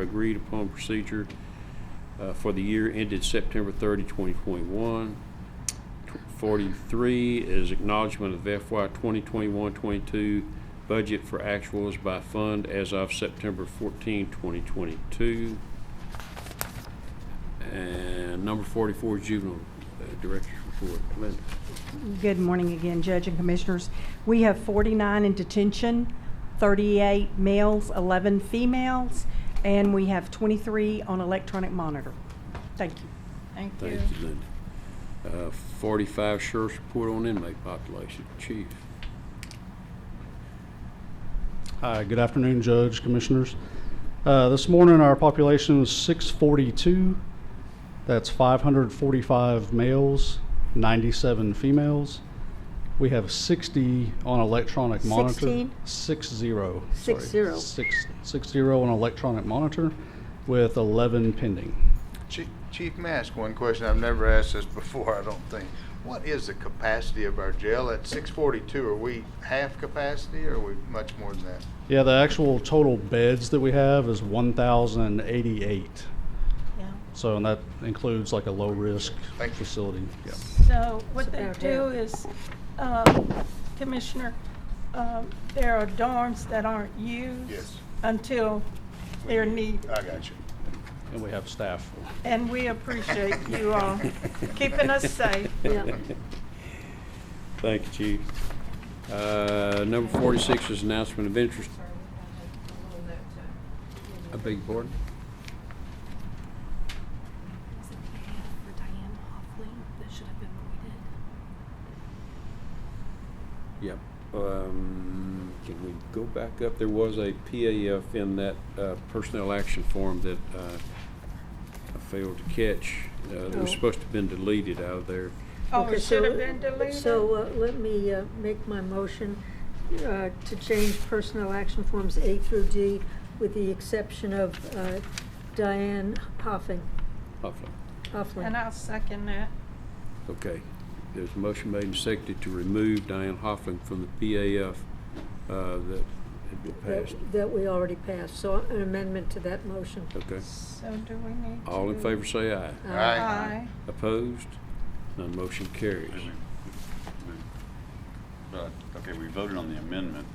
agreed upon procedure uh, for the year ended September 30, 2021. Tw- 43 is acknowledgement of FY 2021-22 budget for actuals by fund as of September 14, 2022. And number 44 is juvenile uh, director's report. Linda. Good morning again, Judge and Commissioners. We have 49 in detention, 38 males, 11 females, and we have 23 on electronic monitor. Thank you. Thank you. Thank you, Linda. Uh, 45 sheriff's report on inmate population. Chief. Hi, good afternoon, Judge, Commissioners. Uh, This morning, our population was 642. That's 545 males, 97 females. We have 60 on electronic monitor. Sixteen? Six zero. Six sorry. zero. Six- six zero on electronic monitor with 11 pending. Chief, Chief Mask, one question I've never asked this before, I don't think. What is the capacity of our jail? At six forty-two, are we half capacity or are we much more than that? Yeah, the actual total beds that we have is 1,088. Yeah. So, and that includes like a low-risk Thank you. facility. Yeah. So what they It's about do half. is, um, Commissioner, um, there are dorms that aren't used. Yes. Until they're needed. I got you. And we have staff for And we appreciate you all keeping us safe. Yeah. Thank you, Chief. Uh, Number 46 is announcement of interest. I beg your pardon? Wasn't bad for Diane Hoffling. That should have been what we did. Yep. Um, Can we go back up? There was a PAF in that uh, personnel action form that uh, I failed to catch. Uh, It Oh. was supposed to have been deleted out of there. Oh, Okay, it should so- have been deleted? So uh, let me uh, make my motion uh, to change personnel action forms A through D with the exception of uh, Diane Poffin, Hopefully. And Pofflin. I'll second that. Okay. There's a motion made and seconded to remove Diane Hoffling from the PAF uh, that had been passed. that- That we already passed, so an amendment to that motion. Okay. So do we need to? All in do- favor, say aye. Uh, Aye. Opposed? None motion carries. But, okay, we voted on the amendment.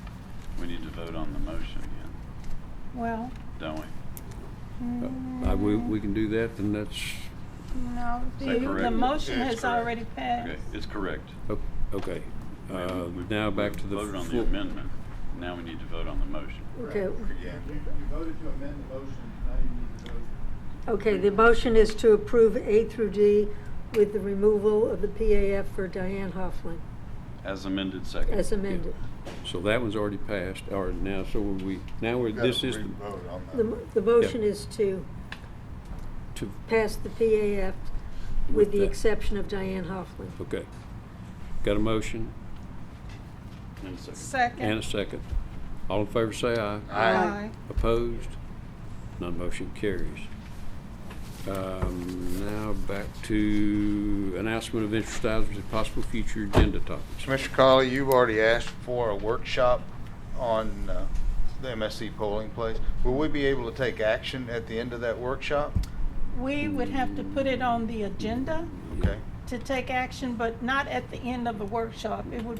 We need to vote on the motion again, Well, don't we? Uh, I- We we can do that, then that's, no, Is that the, the correct? motion It's has already Okay, passed. it's correct. o- okay. Uh, We- we- Now back we to the. Voted on the full- amendment. Now we need to vote on the motion. Okay, Again, You voted to amend the motion, now you need to vote. okay, the motion is to approve A through D with the removal of the PAF for Diane Hofflin As amended, second. as amended. So that one's already passed, or now, so we, now we're, we gotta this is re-vote on The, that. mo- the motion Yeah. is to to, pass the PAF With with the that. exception of Diane Hofflin. okay. Got a motion And second. and a Second. second. All in favor, say aye. Aye. Opposed? None motion carries. Um, Now back to announcement of interest items and possible future agenda topics. Commissioner Colley, you've already asked for a workshop on uh, the MSC polling place. Will we be able to take action at the end of that workshop? We would have to put it on the agenda. Okay. to take action, but not at the end of the workshop. It would